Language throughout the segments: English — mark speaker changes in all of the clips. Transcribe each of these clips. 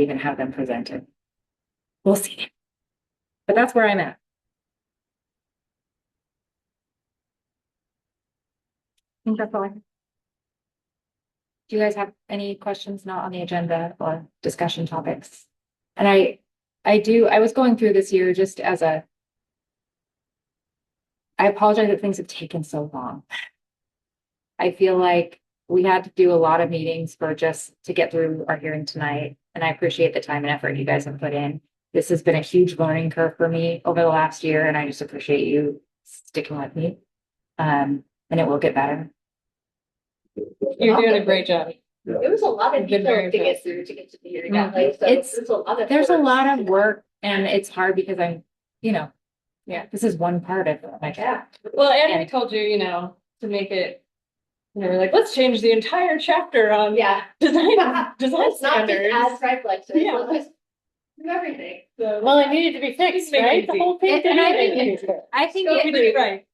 Speaker 1: even have them presented. We'll see. But that's where I'm at. I think that's all. I have. Do you guys have any questions not on the agenda or discussion topics? And I, I do, I was going through this year just as a. I apologize that things have taken so long. I feel like we had to do a lot of meetings for just to get through our hearing tonight, and I appreciate the time and effort you guys have put in. This has been a huge learning curve for me over the last year, and I just appreciate you sticking with me. Um, and it will get better.
Speaker 2: You're doing a great job.
Speaker 3: It was a lot of
Speaker 2: Been very
Speaker 3: details to
Speaker 2: fast.
Speaker 3: get through to get to the year that
Speaker 2: Mhm.
Speaker 3: way, so
Speaker 1: It's-
Speaker 3: there's a lot of.
Speaker 1: There's a
Speaker 3: work.
Speaker 1: lot of work and it's hard because I'm, you know, yeah, this is one part of my job.
Speaker 3: Yeah.
Speaker 2: Well, and we told you, you know, to make it, you know, we're like, let's change the entire chapter on
Speaker 3: Um, Yeah,
Speaker 2: design, design
Speaker 3: it's not just as
Speaker 2: standards.
Speaker 3: reflex,
Speaker 2: Yeah.
Speaker 3: it's just everything.
Speaker 2: So
Speaker 4: Well, it needed to be fixed,
Speaker 2: Make it
Speaker 4: right? The
Speaker 2: easy.
Speaker 4: whole thing.
Speaker 1: It- and I
Speaker 4: needed to be
Speaker 2: think-
Speaker 4: fixed.
Speaker 1: I think,
Speaker 2: go get it
Speaker 1: it-
Speaker 2: right.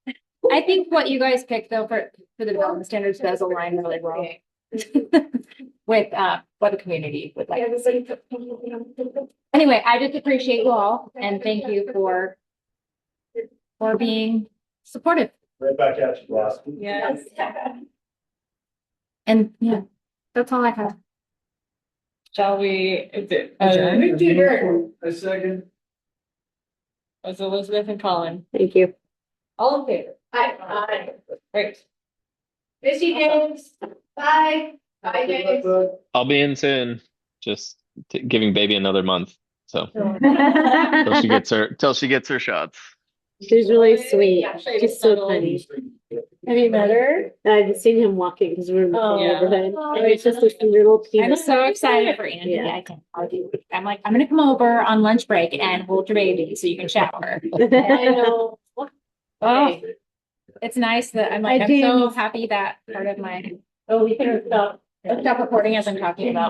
Speaker 1: I think what you guys picked though for, for the development standards does align really well with, uh, what the community would like.
Speaker 3: Everybody put- Thank
Speaker 1: Anyway, I just appreciate you all and thank you for for being supportive
Speaker 5: Right back at you, Ross.
Speaker 2: Yes.
Speaker 1: and yeah, that's all I have.
Speaker 2: Shall we? is it-
Speaker 3: I
Speaker 2: uh,
Speaker 3: moved to adjourn.
Speaker 5: A second.
Speaker 2: Was Elizabeth and Colin?
Speaker 4: Thank you.
Speaker 2: All in favor?
Speaker 3: Hi, bye.
Speaker 2: Great.
Speaker 3: Missy James, bye. Bye, James.
Speaker 6: I'll be in soon. Just t- giving baby another month. So till she gets her till she gets her shots.
Speaker 4: She's really sweet.
Speaker 3: Yeah,
Speaker 2: she
Speaker 4: She's
Speaker 2: was
Speaker 4: so
Speaker 2: subtle.
Speaker 4: funny. Have you met her? I've seen him walking because we're in the
Speaker 2: Oh,
Speaker 4: same
Speaker 2: yeah.
Speaker 4: neighborhood. And it's just this little
Speaker 1: I'm
Speaker 4: penis.
Speaker 1: so excited for Andy.
Speaker 4: Yeah.
Speaker 1: I can argue. I'm like, I'm gonna come over on lunch break and hold your baby so you can shower.
Speaker 4: I
Speaker 3: know.
Speaker 1: Oh, it's nice that I'm like,
Speaker 4: I
Speaker 1: I'm so
Speaker 4: didn't-
Speaker 1: happy that part of my. Oh, we can stop. Stop uh, recording as I'm talking about